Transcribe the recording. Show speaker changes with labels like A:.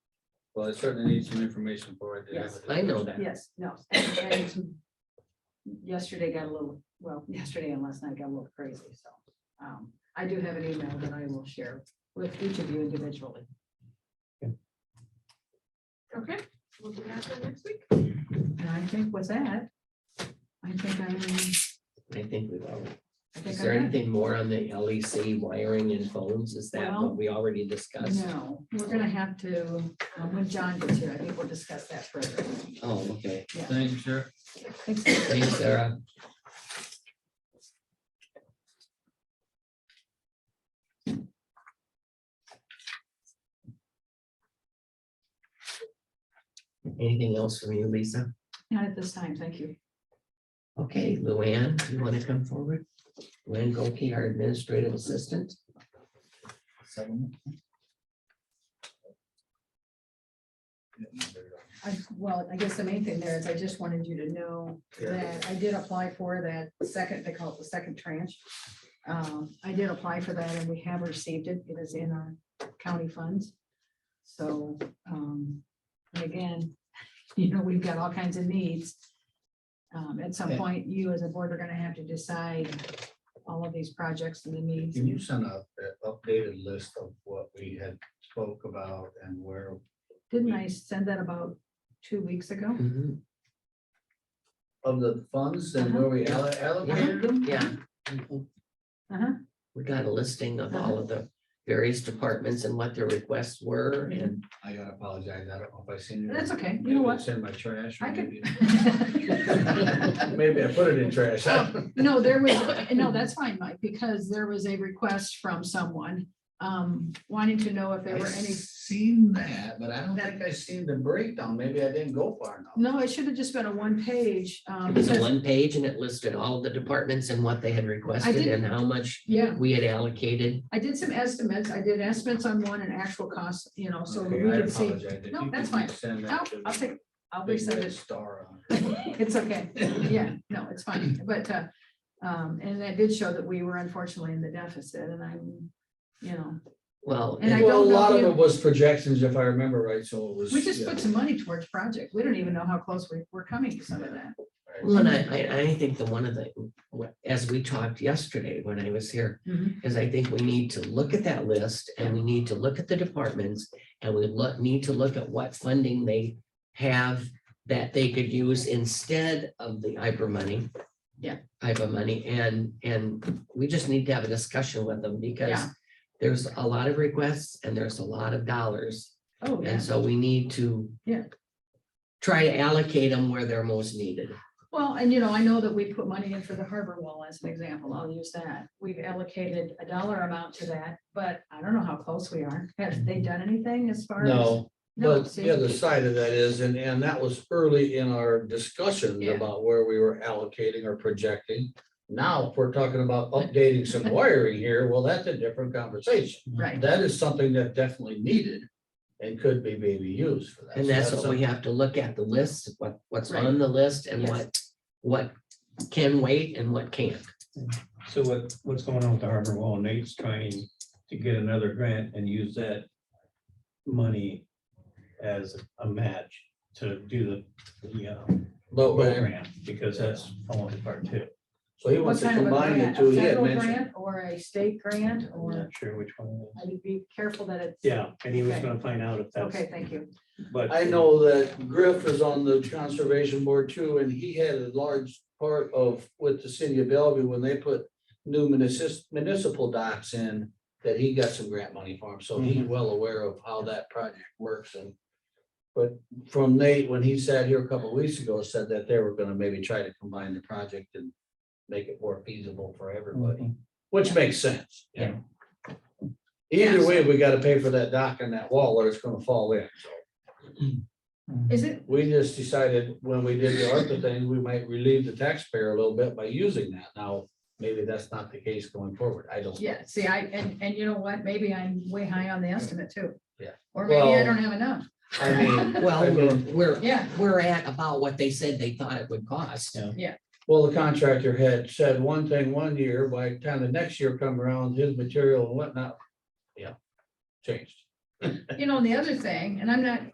A: Well, I certainly need some information for it.
B: Yes, I know that.
C: Yes, no. and- and Yesterday got a little, well, yesterday and last night got a little crazy, so. um, I do have an email that I will share with each of you individually.
D: Okay, we'll do that for next week.
C: And I think with that, I think I'm,
B: I think we will.
C: I
B: Is
C: think
B: there
C: I'm.
B: anything more on the LEC wiring and phones? Is that
C: Well,
B: what we already discussed?
C: No, we're gonna have to, um, when John gets here, I think we'll discuss that further.
B: Oh, okay.
A: Thank you, sir.
C: Thanks.
B: Thanks, Sarah. Anything else from you, Lisa?
C: Not at this time, thank you.
B: Okay, Luann, you want to come forward? Luann Goke, our administrative assistant.
C: I, well, I guess the main thing there is I just wanted you to know that I did apply for that second, they call it the second tranche. Um, I did apply for that and we have received it. It is in our county funds. So, um, and again, you know, we've got all kinds of needs. Um, at some
A: Yeah.
C: point, you as a board are gonna have to decide all of these projects and the needs.
A: Can you send out that updated list of what we had spoke about and where?
C: Didn't I send that about two weeks ago?
B: Mhm,
A: Of the funds and where we alle- allocated them?
B: Uh-huh. Yeah.
C: Uh-huh.
B: We got a listing of all of the various departments and what their requests were and
A: I gotta apologize. I don't know if I seen. it.
C: That's okay. You know what?
A: It's in my trash. or
C: I could-
A: maybe- Maybe I put it in trash.
C: Oh, No, there was, no, that's fine, Mike, because there was a request from someone um wanting to know if there
A: I
C: were any.
A: seen that, but I don't
C: That-
A: think I seen the breakdown. Maybe I didn't go far enough.
C: No, it should have just been a one page. um,
B: it was a
C: because-
B: one page and it listed all of the departments and what they had requested
C: did-
B: and how much
C: Yeah,
B: we had allocated.
C: I did some estimates. I did estimates on one and actual costs, you know, so we
A: Okay, I
C: can see.
A: apologize. If
C: No,
A: you
C: that's
A: could
C: fine.
A: Send
C: I'll
A: that to.
C: I'll
A: the
C: take, I'll
A: big
C: resend
A: red
C: it.
A: Star on. it.
C: It's okay. Yeah, no, it's fine. But, uh, um, and that did show that we were unfortunately in the deficit and I'm, you know,
B: Well,
C: And I
B: and-
A: Well, a
C: don't know
A: lot
C: if
A: of
C: you-
A: it was projections, if I remember right, so it was.
C: we just
A: yeah,
C: put some money towards project. We don't even know how close we, we're coming to some of that.
A: right.
B: well, and I, I, I think the one of the, what- as we talked yesterday when I was here,
C: Mhm.
B: Because I think we need to look at that list and we need to look at the departments and we look, need to look at what funding they have that they could use instead of the IBRA money.
C: Yeah.
B: IBRA money and, and we just need to have a discussion with them because
C: Yeah.
B: there's a lot of requests and there's a lot of dollars.
C: Oh, yeah.
B: And so we need to
C: Yeah.
B: try to allocate them where they're most needed.
C: Well, and you know, I know that we put money in for the harbor wall as an example. I'll use that. We've allocated a dollar amount to that, but I don't know how close we are. Have they done anything as far as?
A: No,
C: No,
A: but
C: see,
A: the other side of that is, and, and that was early in our discussion
C: Yeah.
A: about where we were allocating or projecting. Now, if we're talking about updating some wiring here, well, that's a different conversation.
C: right,
A: That is something that definitely needed and could be maybe used for that.
B: And
A: So
B: that's what we
A: something-
B: have to look at, the list, what, what's
C: Right.
B: on the list and
C: Yes.
B: what, what can wait and what can't.
E: So what, what's going on with the harbor wall? Nate's trying to get another grant and use that money as a match to do the, the uh
A: But, we're-
E: program, because that's falling apart too.
A: so he
C: what
A: wants to
C: kind of a
A: combine the
C: grant,
A: two.
C: a
A: He had
C: federal
A: mentioned-
C: grant or a state grant
E: I'm
C: or,
E: not sure which one. it is.
C: I'd be careful that it's.
E: Yeah, and he was
C: Okay.
E: gonna find out if that's,
C: Okay, thank you.
E: but.
A: I know that Griff is on the conservation board too, and he had a large part of with the city of Bellevue when they put new municipal municipal docks in, that he got some grant money for him, so he's well aware of how that project works and but from Nate, when he sat here a couple of weeks ago, said that they were gonna maybe try to combine the project and make it more feasible for everybody, which makes sense. you know? Either way, we gotta pay for that dock and that wall or it's gonna fall in.
C: Is it,
A: We just decided when we did the ARPA thing, we might relieve the taxpayer a little bit by using that. Now, maybe that's not the case going forward. I don't.
C: yeah, see, I, and, and you know what? Maybe I'm way high on the estimate too.
A: Yeah.
C: Or maybe I
A: Well-
C: don't have enough.
A: I mean, I
B: Well, we're,
A: mean,
B: we're,
C: Yeah,
B: we're at about what they said they thought it would cost.
E: Yeah.
A: well, the contractor had said one thing one year, by the time the next year come around, his material and whatnot. Yeah, changed.
C: you know, and the other thing, and I'm not